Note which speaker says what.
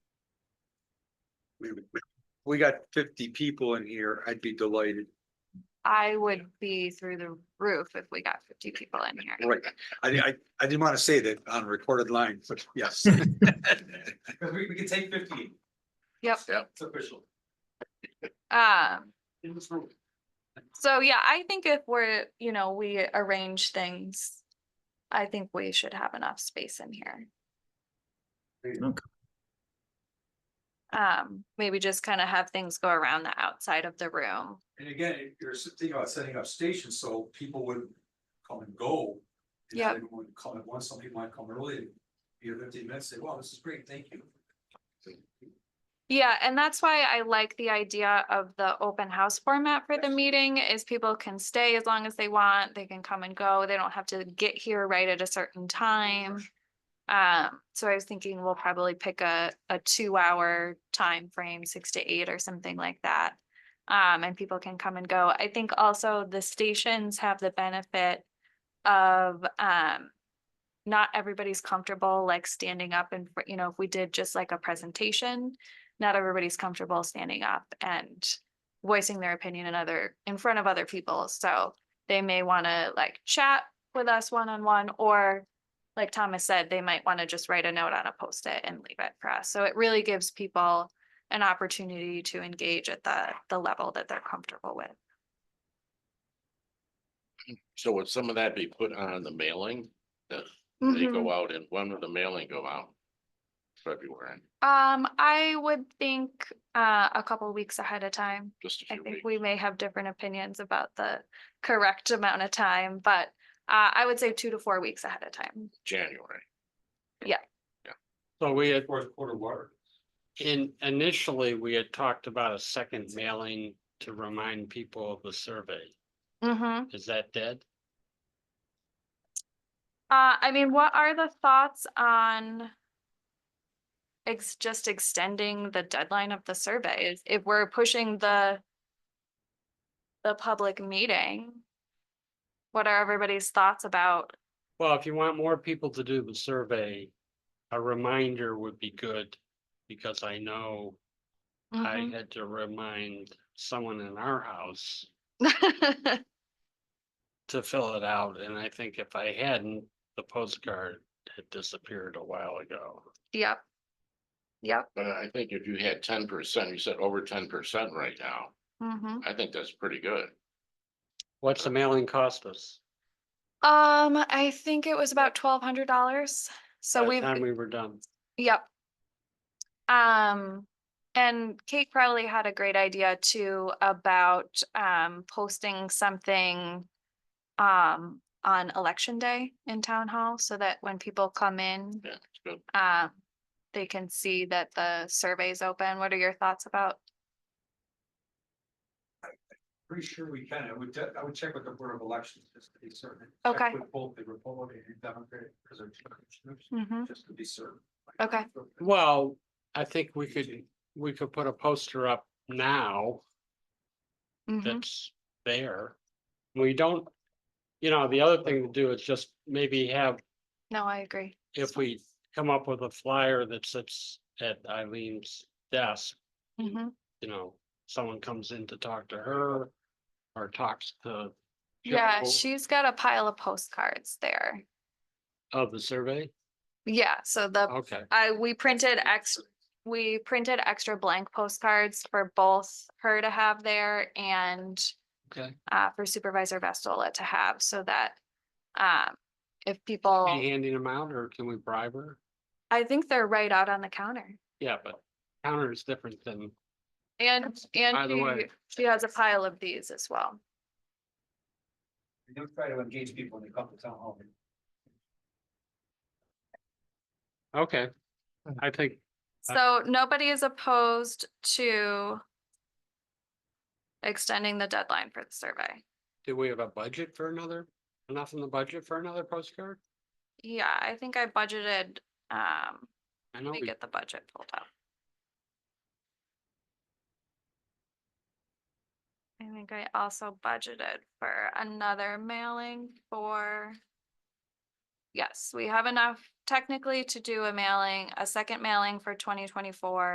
Speaker 1: We got fifty people in here, I'd be delighted.
Speaker 2: I would be through the roof if we got fifty people in here.
Speaker 1: Right, I, I, I didn't want to say that on recorded line, but yes.
Speaker 3: Cause we, we can take fifteen,
Speaker 2: Yep,
Speaker 3: it's official.
Speaker 2: um,
Speaker 3: In this room.
Speaker 2: so yeah, I think if we're, you know, we arrange things. I think we should have enough space in here. Um, maybe just kind of have things go around the outside of the room.
Speaker 3: And again, if you're s- thinking about setting up stations, so people would come and go. and
Speaker 2: Yep.
Speaker 3: Everyone would come at once, some people might come early, and be here fifteen minutes, say, wow, this is great, thank you.
Speaker 2: Yeah, and that's why I like the idea of the open house format for the meeting is people can stay as long as they want, they can come and go, they don't have to get here right at a certain time. Um, so I was thinking we'll probably pick a, a two hour time frame, six to eight or something like that. Um, and people can come and go. I think also the stations have the benefit of, um, not everybody's comfortable like standing up and, you know, if we did just like a presentation, not everybody's comfortable standing up and voicing their opinion in other, in front of other people. So they may want to like chat with us one-on-one or like Thomas said, they might want to just write a note on a post-it and leave it for us. So it really gives people an opportunity to engage at the, the level that they're comfortable with.
Speaker 4: So would some of that be put on the mailing? That they
Speaker 2: Mhm.
Speaker 4: go out and when would the mailing go out? February,
Speaker 2: Um, I would think, uh, a couple weeks ahead of time.
Speaker 4: just a
Speaker 2: I
Speaker 4: few
Speaker 2: think
Speaker 4: weeks.
Speaker 2: we may have different opinions about the correct amount of time, but uh, I would say two to four weeks ahead of time.
Speaker 4: January.
Speaker 2: Yeah.
Speaker 4: Yeah.
Speaker 5: So we had,
Speaker 3: Fourth quarter water.
Speaker 5: in initially, we had talked about a second mailing to remind people of the survey.
Speaker 2: Mm-hmm.
Speaker 5: Is that dead?
Speaker 2: Uh, I mean, what are the thoughts on ex- just extending the deadline of the survey? Is- If we're pushing the the public meeting, what are everybody's thoughts about?
Speaker 5: Well, if you want more people to do the survey, a reminder would be good. Because I know I
Speaker 2: Mhm.
Speaker 5: had to remind someone in our house to fill it out. And I think if I hadn't, the postcard had disappeared a while ago.
Speaker 2: Yep. Yep.
Speaker 4: But I think if you had ten percent, you said over ten percent right now,
Speaker 2: Mm-hmm.
Speaker 4: I think that's pretty good.
Speaker 5: What's the mailing cost us?
Speaker 2: Um, I think it was about twelve hundred dollars, so
Speaker 5: By the
Speaker 2: we've,
Speaker 5: Time we were done.
Speaker 2: yep. Um, and Kate Crowley had a great idea too about um posting something. Um, on election day in town hall so that when people come in,
Speaker 4: Yeah, it's good.
Speaker 2: um. They can see that the survey's open. What are your thoughts about?
Speaker 3: Pretty sure we can, I would, de- I would check with the Board of Elections, just to be certain. Check
Speaker 2: Okay.
Speaker 3: With both the Republican and Democratic, because they're two commissioners,
Speaker 2: Mhm.
Speaker 3: just to be certain.
Speaker 2: Okay.
Speaker 5: Well, I think we could, we could put a poster up now
Speaker 2: Mhm.
Speaker 5: that's there. We don't, you know, the other thing to do is just maybe have,
Speaker 2: No, I agree.
Speaker 5: if we come up with a flyer that sits at Eileen's desk,
Speaker 2: Mhm.
Speaker 5: you know, someone comes in to talk to her or talks to
Speaker 2: Yeah,
Speaker 5: Joe
Speaker 2: she's got a pile of postcards there.
Speaker 5: of the survey.
Speaker 2: Yeah, so the
Speaker 5: Okay,
Speaker 2: I, we printed ex, we printed extra blank postcards for both her to have there and
Speaker 5: okay.
Speaker 2: uh, for Supervisor Vestola to have so that um, if
Speaker 5: Be
Speaker 2: people,
Speaker 5: handing them out or can we bribe her?
Speaker 2: I think they're right out on the counter.
Speaker 5: Yeah, but counter is different than,
Speaker 2: And,
Speaker 5: By
Speaker 2: and
Speaker 5: the
Speaker 2: she,
Speaker 5: way-
Speaker 2: she has a pile of these as well.
Speaker 3: And They'll try to engage people when they come to town hall.
Speaker 5: okay. I think
Speaker 2: So nobody is opposed to extending the deadline for the survey.
Speaker 5: Do we have a budget for another, enough in the budget for another postcard?
Speaker 2: Yeah, I think I budgeted, um,
Speaker 5: I know
Speaker 2: let me
Speaker 5: we,
Speaker 2: get the budget pulled up. I think I also budgeted for another mailing for. Yes, we have enough technically to do a mailing, a second mailing for twenty twenty-four.